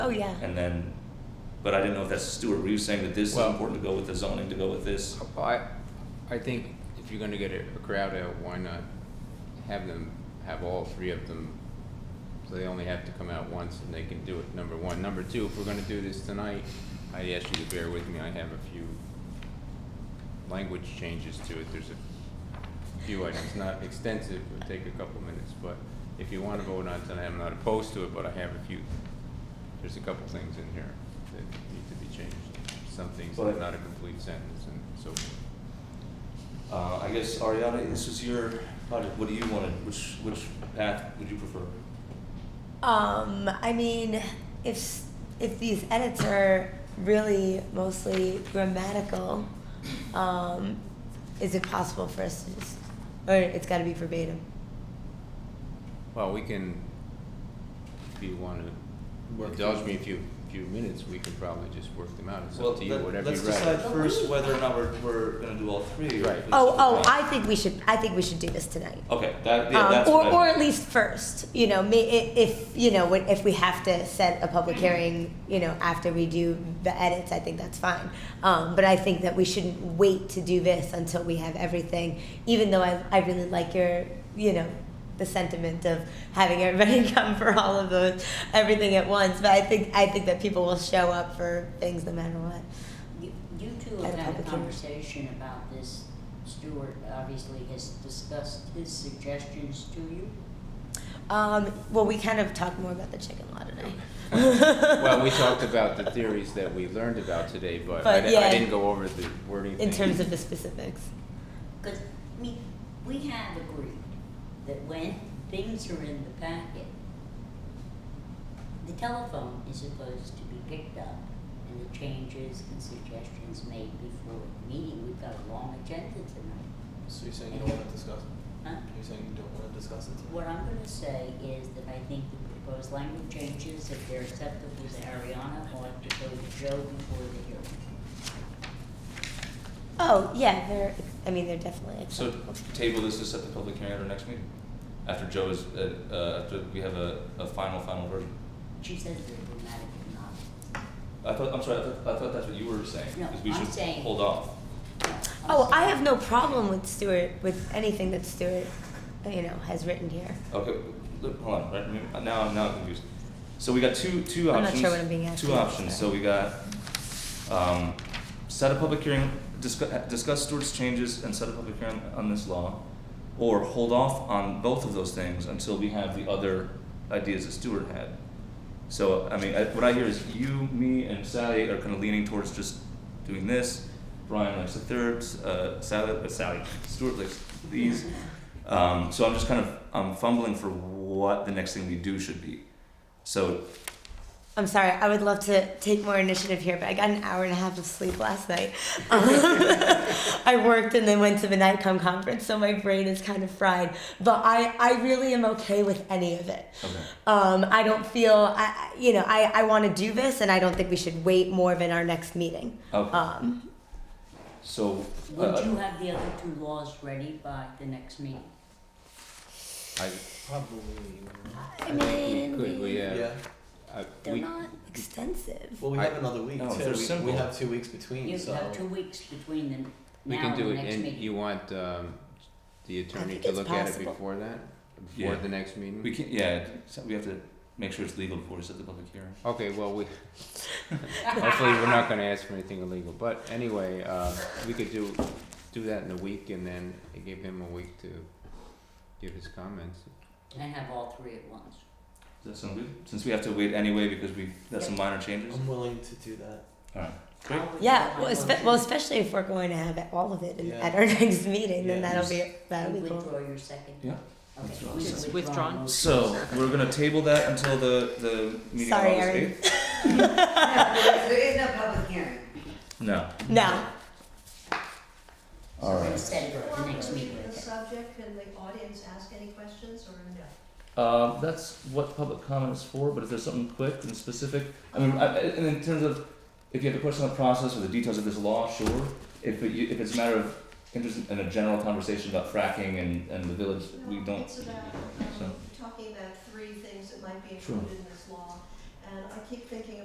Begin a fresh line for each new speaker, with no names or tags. Oh, yeah.
And then, but I didn't know if that's Stuart, were you saying that this is
Well-
important to go with the zoning, to go with this?
I, I think if you're gonna get a a crowd out, why not have them, have all three of them? So they only have to come out once and they can do it, number one. Number two, if we're gonna do this tonight, I ask you to bear with me, I have a few language changes to it, there's a few items, not extensive, it'll take a couple minutes, but if you wanna vote on tonight, I'm not opposed to it, but I have a few, there's a couple things in here that need to be changed. Some things that are
But-
not a complete sentence and so forth.
Uh, I guess Ariana, this is your project, what do you want, to- which, which path would you prefer?
Um, I mean, if s- if these edits are really mostly grammatical, um, is it possible for us to just, or it's got to be verbatim?
Well, we can, if you wanna
Work
indulge
through
me a few, few minutes, we can probably just work them out. It's
Well,
up to you,
let-
whatever you
Let's
rather.
decide first whether or not we're, we're gonna do all three. or
Right.
if it's-
Oh, oh, I think we should. I think we should do this tonight.
Okay, that, yeah,
um,
that's
or,
what I
or
meant.
at least first, you know, may, i- if you know, when- if we have to set a public hearing, you know, after we do the edits, I think that's fine. Um, but I think that we shouldn't wait to do this until we have everything. Even though I, I really like your, you know, the sentiment of having everybody come for all of those, everything at once. But I think I think that people will show up for things no matter what.
You, you two
At a
have had a
public hearing.
conversation about this. Stuart obviously has discussed his suggestions to you.
Um, well, we kind of talked more about the chicken law today.
Well, we talked about the theories that we learned about today, but I
But,
di- I
yeah.
didn't go over the wording
in
thing.
terms of the specifics.
Cause, I mean, we have agreed that when things are in the packet, the telephone is supposed to be picked up and the changes and suggestions made before the meeting. We've got a long agenda tonight,
So you're saying you don't want to discuss it?
huh?
You're saying you don't want to discuss it?
What I'm gonna say is that I think the proposed language changes, if they're acceptable to Ariana, ought to go to Joe before the hearing.
Oh yeah, they're. I mean, they're definitely.
So
acceptable.
table this to set the public hearing at our next meeting, after Joe is, uh, uh, after we have a, a final, final version.
She says they're dramatic and not.
I thought, I'm sorry, I thought, I thought that's what you were saying,
No,
is we
I'm
should
saying-
hold off.
oh, I have no problem with Stuart with anything that Stuart, you know, has written here.
Okay, look, hold on, right, maybe- now, I'm- now I'm confused. So we got two, two
I'm not
options.
sure what I'm being asked
Two
to do,
options, so
sorry.
we got, um, set a public hearing, discuss, discuss Stewart's changes and set a public hearing on this law. Or hold off on both of those things until we have the other ideas that Stewart had. So, I mean, I, what I hear is you, me, and Sally are kind of leaning towards just doing this. Brian likes the third, uh, Sally, uh, Sally, Stewart likes these. Um, so I'm just kind of I'm fumbling for what the next thing we do should be. So
I'm sorry. I would love to take more initiative here, but I got an hour and a half of sleep last night. I worked and then went to the Nightcom conference, so my brain is kind of fried. But I, I really am okay with any of it.
okay.
Um, I don't feel, I, I- you know, I, I want to do this, and I don't think we should wait more than our next meeting.
Okay.
Um,
So
Would
uh,
you have the other two laws ready by the next meeting?
I,
Probably.
I
I think
mean,
we could, we,
Yeah.
uh, I,
they're
we,
not extensive.
Well, we
I-
have another week
No,
too.
they're
We-
simple.
We have two weeks between,
You
Hmm, so.
have two weeks between them
we
now
can
and
do
the
it,
next
and
meeting.
you want, um, the attorney
think
to
it's
look at it
possible.
before that?
Yeah.
Before the next meeting?
we can yeah. So we have to make sure it's legal before we set the public hearing.
Okay, well, we, hopefully, we're not gonna ask for anything illegal, but anyway, uh, we could do, do that in a week and then give him a week to give his comments.
And have all three at once.
Does that sound good? Since we have to wait anyway because we got some minor changes.
I'm willing to do that.
All right.
I would
Yeah, well,
like
espe-
one
well, especially if we're going to have it- all of it in,
Yeah.
at our next meeting, then
Yeah.
that'll be
to-
that'll
You
be cool.
Withdraw your second.
Yeah.
Okay.
Withdraw
we
second.
should
Withdrawn.
motion.
So we're gonna table that until the the meeting
Sorry,
on August
Erin.
eighth.
There is no public hearing.
No.
No,
So
All
we're
right.
gonna set it for the next meeting.
the subject, can the audience ask any questions or no?
Uh, that's what public comment is for, but if there's something quick and specific, I mean, I, I- and in terms of, if you have a question on the process or the details of this law, sure. If it, if it's a matter of interest in a general conversation about fracking and, and the village, we
No,
don't.
It's about, um,
so.
talking about three things that might be
Sure.
included in this law, and I keep thinking